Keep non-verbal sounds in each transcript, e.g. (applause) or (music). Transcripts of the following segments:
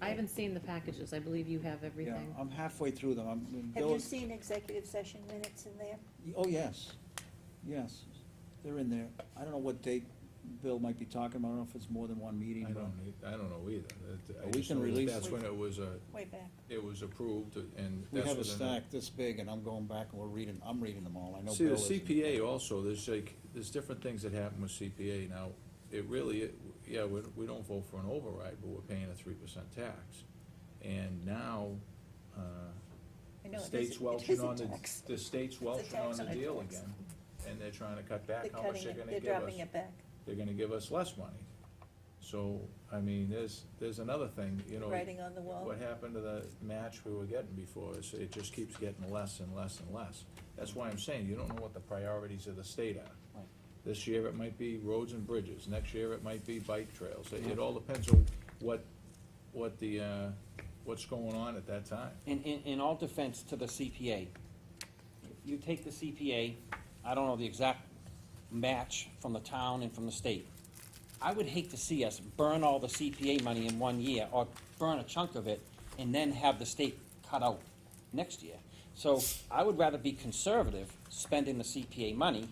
I haven't seen the packages, I believe you have Yeah, everything. I'm halfway through them, I'm, I'm- Have you those- seen executive session minutes in there? oh, yes, yes, they're in there. I don't know what date Bill might be talking about, I don't know if it's more than one meeting. I but- don't, e- I don't know either. That- I Well, we just can know that release- That's when it was, uh, Way back. it was approved and. We that's have a when the- stack this big, and I'm going back and we're reading, I'm reading them all, I know See, the Bill isn't. CPA also, there's like, there's different things that happen with CPA. Now, it really, yeah, we, we don't vote for an override, but we're paying a three percent tax. And now, uh, I the know it state's isn't- welching It on is a the, tax. the state's welching on tax the on a deal tax. again. And they're trying to cut They're back how much cutting they're it, gonna they're give us. dropping it back. They're gonna give us less money. So, I mean, there's, there's another thing, you know. Writing on the wall. What happened to the match we were getting before is it just keeps getting less and less and less. That's why I'm saying, you don't know what the priorities of the state are. Right. This year it might be roads and bridges, next year it might be bike trails. It it all depends on what, what the, uh, what's going on at that time. In, in, in all defense to the CPA, if you take the CPA, I don't know the exact match from the town and from the state. I would hate to see us burn all the CPA money in one year, or burn a chunk of it, and then have the state cut out next year. So I would rather be conservative, spending the CPA money,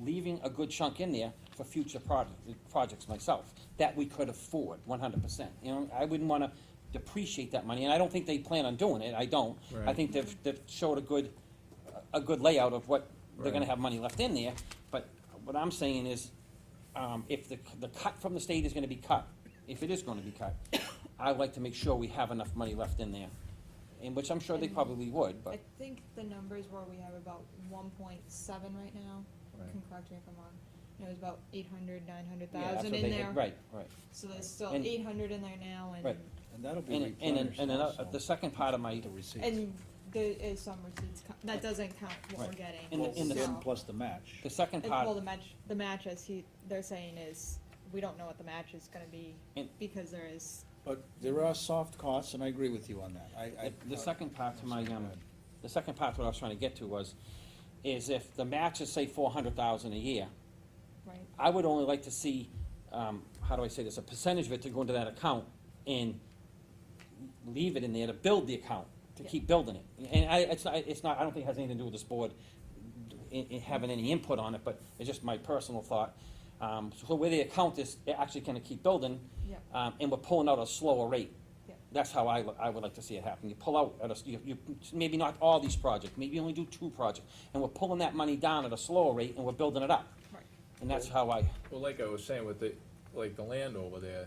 leaving a good chunk in there for future project, projects myself, that we could afford, one hundred percent. You know, I wouldn't wanna depreciate that money, and I don't think they plan on doing it, I don't. I Right. think they've, they've showed a good, a good layout of what, they're gonna Right. have money left in there, but what I'm saying is, um, if the, the cut from the state is gonna be cut, if it is gonna be cut, (coughs) I'd like to make sure we have enough money left in there, and which I'm sure they probably would, I but, think the numbers were we have about one point seven right now. Right. You Can correct me if I'm wrong. And it was about eight hundred, nine hundred yeah, that's thousand what in they, had- there. right, right. So there's still And- eight hundred in there now and Right. And that'll be And, and, replenished and another, also. the second part of my, The receipts. and there is some receipts co- that doesn't count what we're Right. getting. In the- in the- so- And plus the match. the second and, well, part, the match, the match as he they're saying is we don't know what the match is going to be And- because there is But there are soft costs, and I agree with you on that. I, uh, I. the- the second part to my, um, the second part, what I was trying to get to was, is if the match is, say, four hundred thousand a year, right. I would only like to see, um, how do I say this, a percentage of it to go into that account and leave it in there to build the account, to keep building it. And I, it's not, it's not, I don't think it has anything to do with this board in, in having any input on it, but it's just my personal thought. Um, so where the account is, it actually kinda keep building. Yep. Um, and we're pulling out a slower rate. Yep. That's how I, I would like to see it happen. You pull out at a, you, you, maybe not all these projects, maybe only do two projects. And we're pulling that money down at a slower rate and we're building it up. Right. And that's how I, Well, like I was saying with the, like the land over there,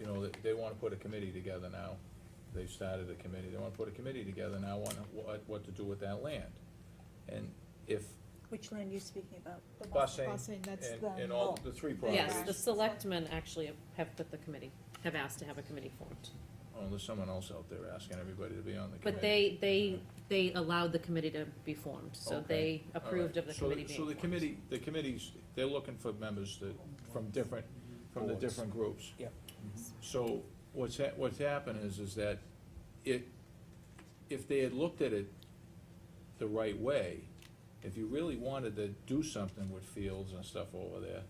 you know, they, they wanna put a committee together now. They've started a committee, they wanna put a committee together now on what, what to do with that land. And if Which land are you speaking about? busing Busing, that's and, the and all mill. the three Yes, the properties, selectmen actually have put the committee, have asked to have a committee formed. oh, there's someone else out there asking everybody to be on the committee. But they, they, they allowed the committee to be formed, so Okay, they all right. approved of the So- committee being So the formed. committee, the committees, they're looking for members that, from different, from the Boards. different groups. Yep. So what's hap, what's happened is, is that it, if they had looked at it the right way, if you really wanted to do something with fields and stuff over there,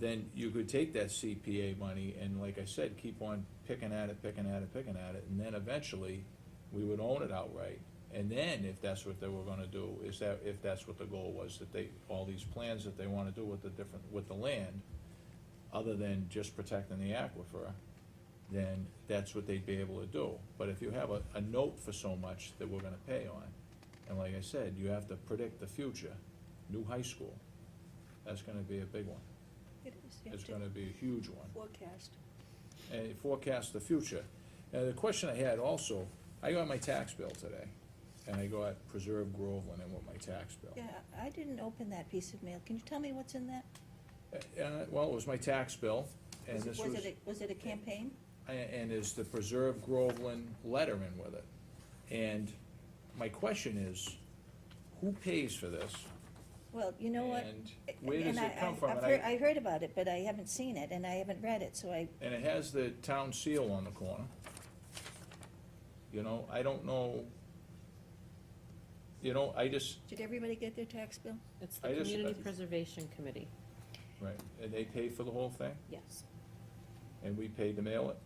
then you could take that CPA money and, like I said, keep on picking at it, picking at it, picking at it, and then eventually, we would own it outright. And then, if that's what they were gonna do, is that, if that's what the goal was, that they, all these plans that they wanna do with the different, with the land, other than just protecting the aquifer, then that's what they'd be able to do. But if you have a, a note for so much that we're gonna pay on, and like I said, you have to predict the future, new high school, that's gonna be a big one. It is, you have It's to gonna be a huge one, Forecast. and it forecasts the future. Now, the question I had also, I got my tax bill today, and I got Preserve Groveland in with my tax bill. Yeah, I didn't open that piece of mail. Can you tell me what's in that? Uh, well, it was my tax bill, and Was it- this was was, it, a- was it a campaign? a- and is the Preserve Groveland letter in with it. And my question is, who pays for this? Well, you know what? And where And does I- it come I- from? I've And I- heard- I heard about it, but I haven't seen it, and I haven't read it, so I, And it has the town seal on the corner. You know, I don't know, you know, I just, did everybody get their tax bill? It's the I just- Community Preservation Committee, Right, and they pay for the whole thing, yes. and we pay to mail it?